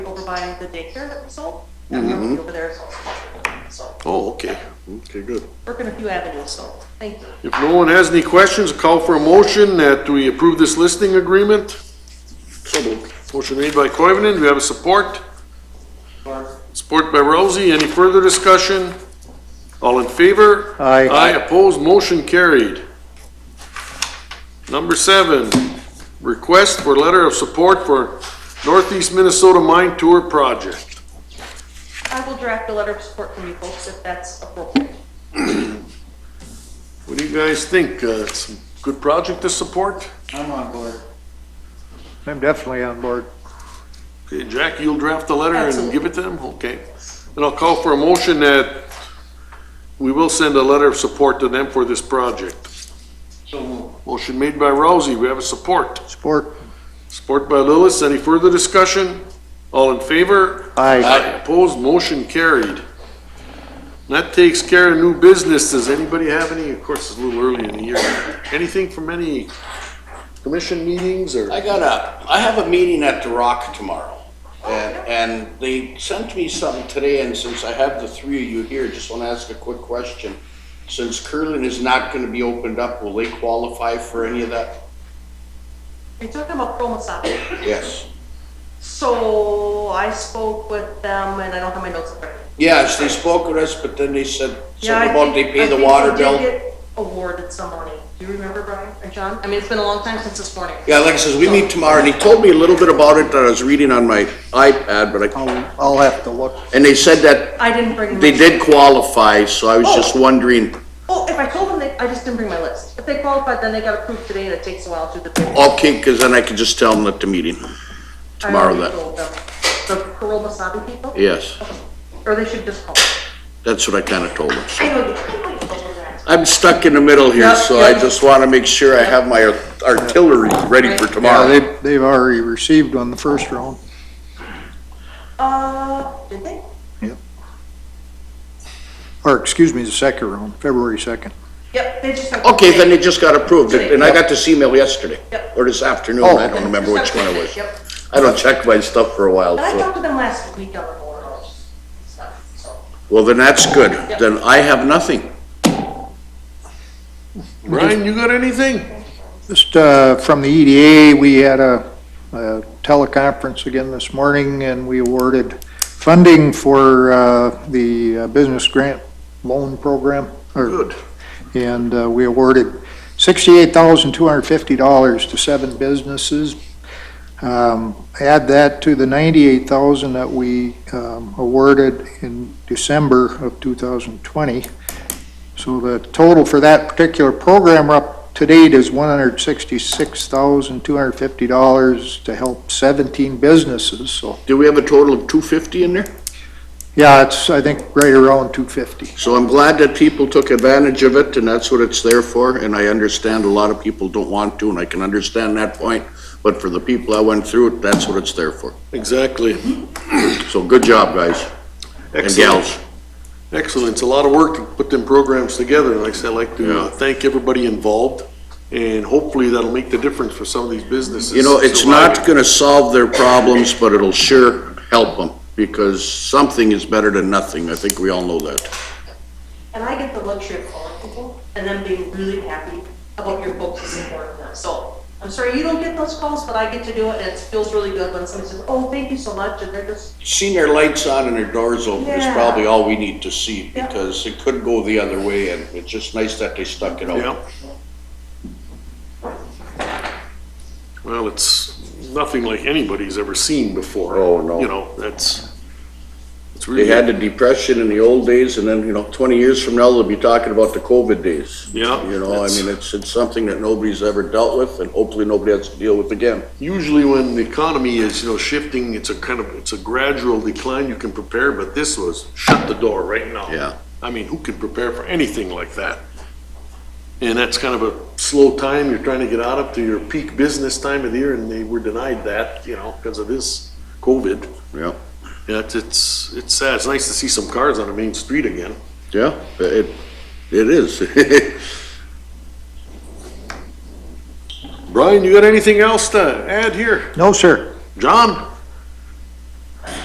over by the daycare that we sold. Mm-hmm. That property over there is also sold. so, Oh, okay. Okay, good. working a few avenues, so, thank you. If no one has any questions, call for a motion that we approve this listing agreement. So moved. Motion made by Coivinon, do we have a support? Support by Rousey, any further discussion? All in favor? Aye. Aye, opposed, motion carried. Number seven, request for letter of support for Northeast Minnesota Mine Tour Project. I will draft a letter of support from you folks if that's appropriate. What do you guys think? Uh, it's a good project to support? I'm on board. I'm definitely on board. Okay, Jack, you'll draft the letter and give it to them? Okay. And I'll call for a motion that we will send a letter of support to them for this project. So move. Motion made by Rousey, we have a support. Support. Support by Lillis, any further discussion? All in favor? Aye. Opposed, motion carried. And That takes care of new business. Does anybody have any, of course, it's a little early in the year, anything from any commission meetings or? I got a, I have a meeting at The Rock tomorrow. And, and they sent me something today, and since I have the three of you here, just want to ask a quick question. Since curling is not going to be opened up, will they qualify for any of that? We took them up from Wasabi. Yes. So I spoke with them and I don't have my notes up there. Yes, they spoke with us, but then they said Yeah, something I about they think- I pay the think water we did bill. get Awarded some money. Do you remember, Brian or John? I mean, it's been a long time since this morning. Yeah, like I says, we meet tomorrow, and he told me a little bit about it that I was reading on my iPad, but I, I'll, I'll have to look. and they said that I didn't bring. they my- did qualify, so I was just wondering, Oh, if I told them, they, I just didn't bring my list. If they qualified, then they got approved today and it takes a while to do the bidding. okay, because then I could just tell them at the meeting I tomorrow already that, told them. The Kuroma Sabi people? yes. Or they should just call. That's what I kind of told him. I know, you can't wait for that. I'm stuck in the middle here, Yep, so I yep. just want to make sure I have my art- artillery ready Right. for Yeah, tomorrow. they, they've already received on the first round. Uh, did they? Or, excuse me, the second round, February second. Yep, they just. have- Okay, then it just got approved, and I got this email yesterday, Yep. or this afternoon, Oh. I don't remember which one it was. Yep. I don't check my stuff for a while, And I so. talked to them last week on the board or stuff, so. Well, then that's good, Yep. then I have nothing. Brian, you got anything? Just, uh, from the EDA, we had a, a teleconference again this morning and we awarded funding for, uh, the uh, business grant loan program. or- Good. And uh, we awarded $68,250 to seven businesses. Um, Add that to the $98,000 that we um, awarded in December of 2020. So the total for that particular program up to date is $166,250 to help 17 businesses. So, Do we have a total of two fifty in there? yeah, it's, I think, right around 250. So I'm glad that people took advantage of it, and that's what it's there for, and I understand a lot of people don't want to, and I can understand that point, but for the people that went through it, that's what it's there for. Exactly. So good job, guys and Excellent. gals. Excellent. It's a lot of work to put them programs together. Like I said, I'd like to uh, Yeah. thank everybody involved. And hopefully that'll make the difference for some of these businesses. You know, it's not surviving. gonna solve their problems, but it'll sure help them, because something is better than nothing. I think we all know that. And I get the luxury of calling people and them being really happy about your folks' support of them. So I'm sorry you don't get those calls, but I get to do it and it feels really good when somebody says, oh, thank you so much, and they're just, Seeing their lights on and their doors open is Yeah. probably all we need to see, Yeah. because it could go the other way, and it's just nice that they stuck it out. Yeah. Well, it's nothing like anybody's ever seen before. Oh, no. You know, that's, it's They really, had the depression in the old days, and then, you know, twenty years from now, they'll be talking about the COVID days. Yeah, You know, I it's- mean, it's, it's something that nobody's ever dealt with, and hopefully nobody has to deal with again. usually when the economy is, you know, shifting, it's a kind of, it's a gradual decline. You can prepare, but this was shut the door right now. Yeah. I mean, who can prepare for anything like that? And that's kind of a slow time, you're trying to get out up to your peak business time of the year, and they were denied that, you know, because of this COVID. Yeah. Yeah, it's, it's, it's sad, it's nice to see some cars on the main street again. Yeah, it, it is. Brian, you got anything else to add here? No, sir. John?